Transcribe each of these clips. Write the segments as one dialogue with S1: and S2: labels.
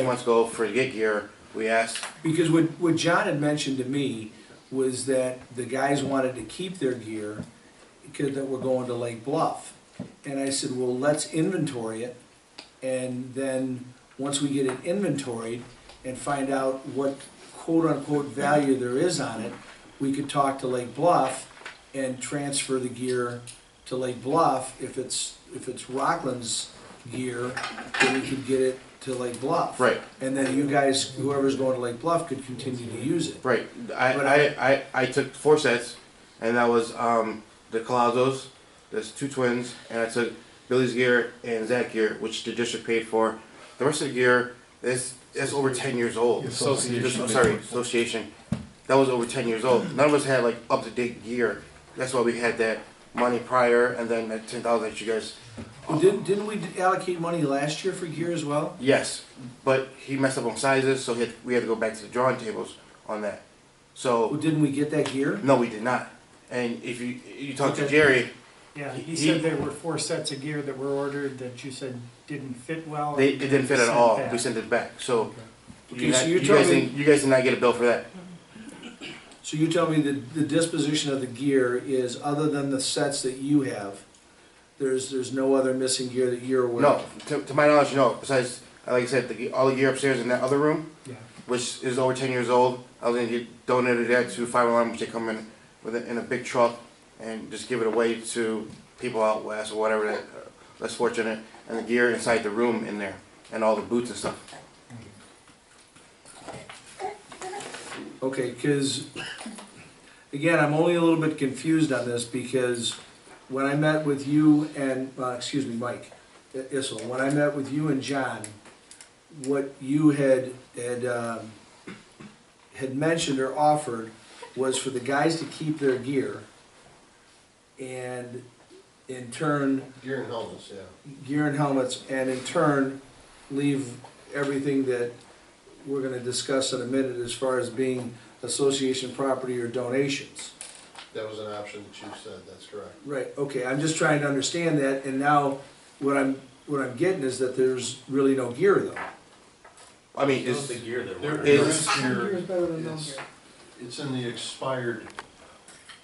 S1: Two months ago for gig year, we asked,
S2: Because what, what John had mentioned to me was that the guys wanted to keep their gear because that were going to Lake Bluff. And I said, well, let's inventory it, and then, once we get it inventoried and find out what quote-unquote value there is on it, we could talk to Lake Bluff and transfer the gear to Lake Bluff. If it's, if it's Rockland's gear, then we could get it to Lake Bluff.
S1: Right.
S2: And then you guys, whoever's going to Lake Bluff could continue to use it.
S1: right, I,
S2: But
S1: I, I, I took four sets, and that was, um, the Colazos, there's two twins, and I took Billy's gear and Zach gear, which the district paid for. The rest of the gear is, is over ten years old.
S3: Association.
S1: I'm Sorry, association, that was over ten years old. None of us had like up-to-date gear, that's why we had that money prior, and then that ten thousand that you guys
S2: Well, Didn't, didn't we allocate money last year for gear as well?
S1: Yes, but he messed up on sizes, so he had, we had to go back to the drawing tables on that.
S2: Well,
S1: So
S2: Didn't we get that gear?
S1: no, we did not. And if you you talk to
S2: Okay.
S1: Jerry,
S4: Yeah,
S1: He-
S4: he said there were four sets of gear that were ordered that you said didn't fit well.
S1: they it didn't fit at
S4: Sent
S1: all.
S4: back.
S1: We sent it back. So
S2: Okay,
S1: you,
S2: so
S1: not-
S2: you're
S1: you guys
S2: telling-
S1: didn't, you guys did not get a bill for that.
S2: So you tell me that the disposition of the gear is, other than the sets that you have, there's, there's no other missing gear that you're aware
S1: No,
S2: of?
S1: to, to my knowledge, no. Besides, like I said, the, ge- all the gear upstairs in that other room,
S4: Yeah.
S1: which is over ten years old, I was gonna get donated that to Five Alarm, which they come in with a, in a big truck and just give it away to people out west or whatever that uh, less fortunate, and the gear inside the room in there, and all the boots and stuff.
S2: Okay, because, again, I'm only a little bit confused on this because when I met with you and, uh, excuse me, Mike I- Issel, when I met with you and John, what you had, had, um, had mentioned or offered was for the guys to keep their gear and in turn,
S5: Gear and helmets, yeah.
S2: gear and helmets, and in turn, leave everything that we're gonna discuss in a minute as far as being association property or donations.
S5: That was an option that you said, that's correct.
S2: Right, okay, I'm just trying to understand that, and now what I'm, what I'm getting is that there's really no gear though.
S1: I mean, it's
S6: gear that
S5: There
S1: is-
S5: there is
S3: Gear
S5: gear,
S3: is better than no
S5: it's,
S3: gear.
S5: it's in the expired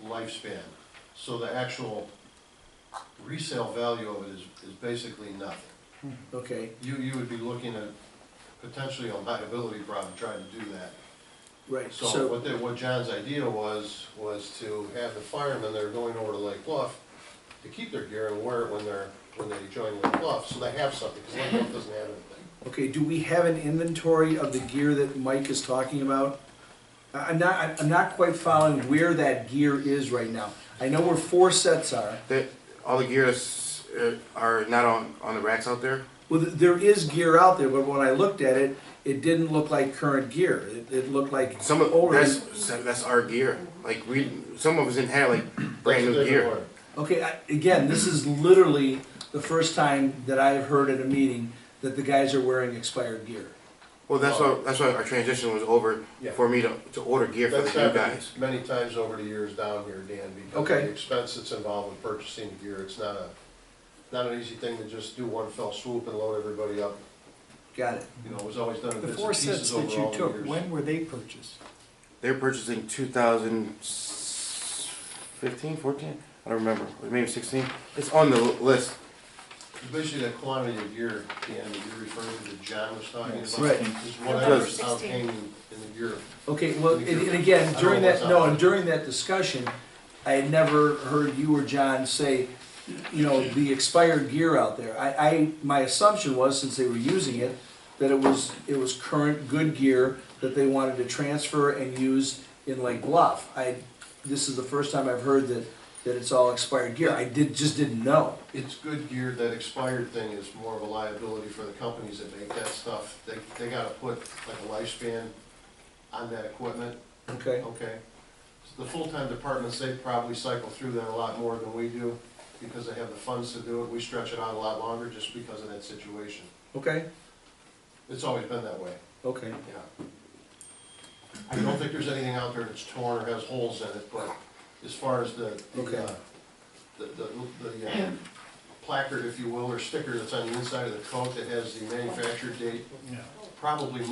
S5: lifespan, so the actual resale value of it is, is basically nothing.
S2: Okay,
S5: You, you would be looking at potentially a liability problem trying to do that.
S2: right,
S5: So
S2: so,
S5: what, the- what John's idea was, was to have the firemen that are going over to Lake Bluff to keep their gear and wear it when they're, when they join Lake Bluff, so they have something, because Lake Bluff doesn't have anything.
S2: okay, do we have an inventory of the gear that Mike is talking about? I- I'm not, I'm not quite following where that gear is right now. I know where four sets are.
S1: the, all the gears uh, are not on on the racks out there.
S2: Well, th- there is gear out there, but when I looked at it, it didn't look like current gear. It, it looked like
S1: Some of
S2: older.
S1: that's that's our gear. Like we, some of us didn't have like brand
S5: That's
S1: new
S5: what they
S1: gear.
S5: were.
S2: Okay, I, again, this is literally the first time that I've heard at a meeting that the guys are wearing expired gear.
S1: Well, that's why that's why our transition was over
S5: Yeah.
S1: for me to, to order gear for
S5: That's
S1: the new
S5: happened
S1: guys.
S5: many times over the years down here, Dan, because of
S2: Okay.
S5: the expense that's involved with purchasing the gear, it's not a, not an easy thing to just do one fell swoop and load everybody up.
S2: Got it.
S5: You know, it was always done in
S4: The
S5: bits
S4: four
S5: and
S4: sets
S5: pieces
S4: that
S5: over
S4: you
S5: all the
S4: took,
S5: years.
S4: when were they purchased?
S1: They're purchasing 2015, 14? I don't remember. Or Maybe 16. It's on the l- list.
S5: Basically, that quantity of gear, Dan, that you're referring to, that John was talking about.
S2: Right.
S5: Is
S1: November
S5: whatever's
S3: 16.
S5: out hanging in the gear.
S2: Okay, well, and, and again, during that, no, and during that discussion, I had never heard you or John say, you know, the expired gear out there. I, I, my assumption was, since they were using it, that it was, it was current good gear that they wanted to transfer and use in Lake Bluff. I, this is the first time I've heard that, that it's all expired gear. I did, just didn't know.
S5: It's good gear, that expired thing is more of a liability for the companies that make that stuff. They, they gotta put like a lifespan on that equipment.
S2: Okay,
S5: Okay. So The full-time departments, they probably cycle through that a lot more than we do because they have the funds to do it. We stretch it out a lot longer just because of that situation.
S2: okay,
S5: It's always been that way,
S2: okay.
S5: yeah. I don't think there's anything out there that's torn or has holes in it, but as far as the, the,
S2: Okay.
S5: uh, the, the, the uh, placard, if you will, or sticker that's on the inside of the coat that has the manufacturer date,
S4: No.
S5: probably